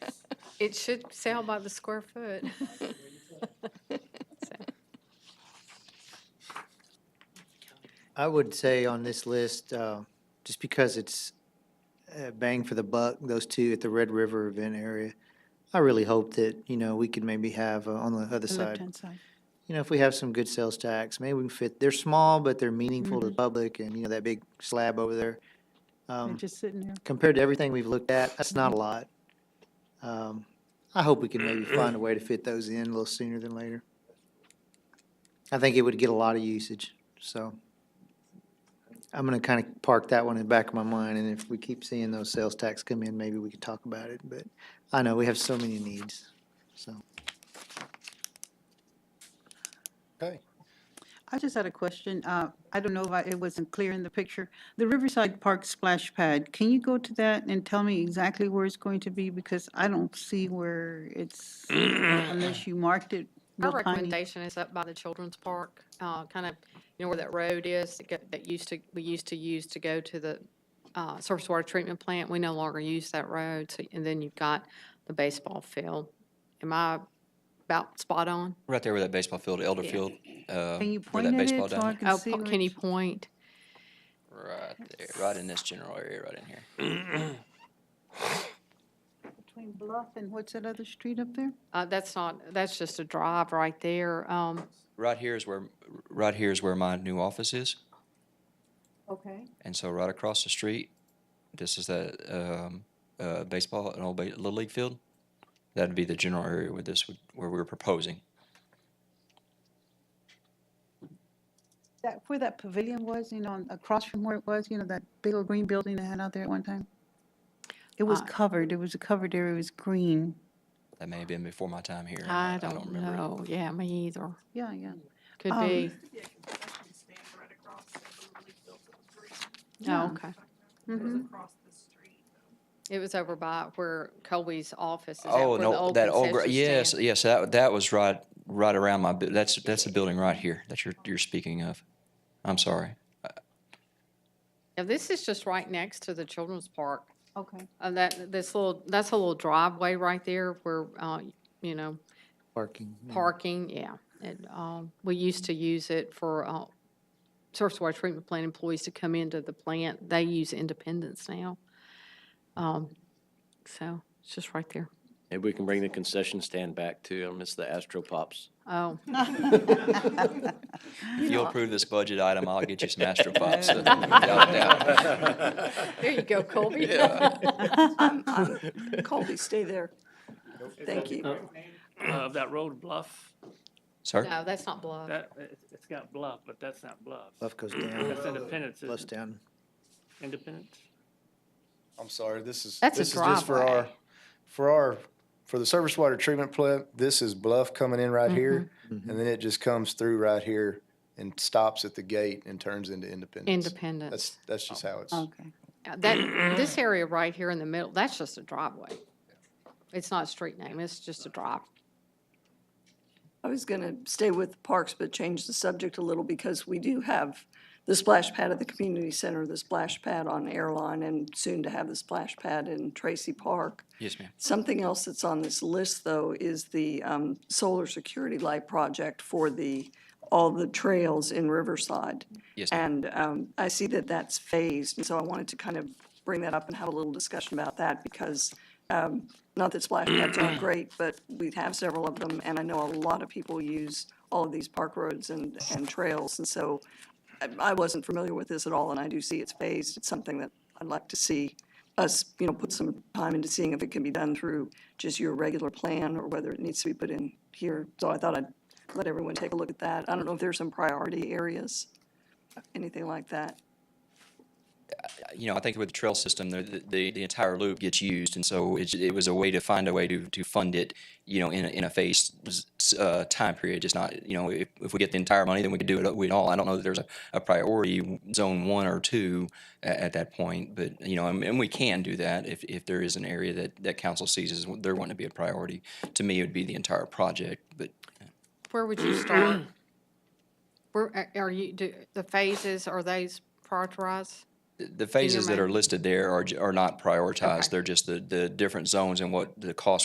It should sell by the square foot. I would say on this list, uh, just because it's uh, bang for the buck, those two at the Red River event area, I really hope that, you know, we could maybe have uh, on the other side, left-hand side. you know, if we have some good sales tax, maybe we can fit, they're small, but they're meaningful to the public and, you know, that big slab over there. They're Um, just sitting there. Compared to everything we've looked at, that's not a lot. Um, I hope we can maybe find a way to fit those in a little sooner than later. I think it would get a lot of usage, so. I'm gonna kind of park that one in the back of my mind, and if we keep seeing those sales tax come in, maybe we could talk about it, but I know we have so many needs, so. Okay. I just had a question. Uh, I don't know if I- it wasn't clear in the picture. The Riverside Park splash pad, can you go to that and tell me exactly where it's going to be? Because I don't see where it's, unless you marked it Our real tiny. recommendation is up by the children's park, uh, kind of, you know, where that road is that go- that used to, we used to use to go to the uh, surface water treatment plant. We no longer use that road, so, and then you've got the baseball field. Am I about spot on? Right there with that baseball field, Elder Yeah. Field. uh, Can you point where that at baseball it so I diamond- can Oh, see? po- where can you it's- point? Right there, right in this general area, right in here. Between Bluff and what's that other street up there? Uh, That's not, that's just a drive right there. Um, Right here is where, right here is where my new office is. Okay. And so right across the street, this is that um, uh, baseball, an old ba- Little League field. That'd be the general area where this would, where we were proposing. That, where that pavilion was, you know, on- across from where it was, you know, that big old green building they had out there at one time? It was Uh, covered, it was a covered area, it was green. That may have been before my time here. Uh, I not- don't remember. know. Yeah, me either. Yeah, yeah. Could Um, be. Yeah. Oh, okay. Mhm. It was over by where Colby's office is at, Oh where the no, old that old gra- concession yes, stand. yes, that that was right right around my. bu- That's that's the building right here that you're you're speaking of. I'm sorry. Now, this is just right next to the children's park. Okay. Uh, that, this little, that's a little driveway right there where, uh, you know, Parking. yeah. parking, yeah. And, um, we used to use it for, uh, surface water treatment plant employees to come into the plant. They use Independence now. Um, so it's just right there. Maybe we can bring the concession stand back too. I miss the Astro Pops. Oh, If you'll approve this budget item, I'll get you some astropods. so without a doubt. there you go, Colby. I'm, I'm, Colby, stay there. Thank you. of that road bluff, Sir, No, that's not bluff. that, it's- it's got bluff, but that's not bluff. Buff goes That's down, Independence, plus isn't it? down. Independence? I'm sorry, this is, That's a this is just for our, driveway. for our, for the surface water treatment plant, this is Bluff coming in right here. Mm-hmm. And then it just comes through right here and stops at the gate and turns into Independence. Independence. That's, that's just how it's, Okay. Uh, That, this area right here in the middle, that's just a driveway. It's not a street name, it's just a drive. I was going to stay with parks, but change the subject a little because we do have the splash pad at the community center, the splash pad on Airline, and soon to have the splash pad in Tracy Park. yes, ma'am. Something else that's on this list, though, is the um, solar security light project for the, all the trails in Riverside. Yes, ma'am. And um, I see that that's phased, and so I wanted to kind of bring that up and have a little discussion about that, because um, not that splash pads aren't great, but we have several of them, and I know a lot of people use all of these park roads and, and trails, and so I- I wasn't familiar with this at all, and I do see it's phased. It's something that I'd like to see us, you know, put some time into seeing if it can be done through just your regular plan or whether it needs to be put in here. So I thought I'd let everyone take a look at that. I don't know if there's some priority areas, anything like that. you know, I think with the trail system, the, the, the entire loop gets used. And so it, it was a way to find a way to, to fund it, you know, in a, in a phased s- uh, time period. Just not, you know, if, if we get the entire money, then we could do it, we all. I don't know that there's a, a priority zone one or two at, at that point, but, you know, and, and we can do that if, if there is an area that, that council sees as there wanting to be a priority. To me, it would be the entire project, but Where would you start? Where, a- are you, do, the phases, are those prioritized? the phases that mind? are listed there are, j- are not prioritized. They're just the, the different zones and what the cost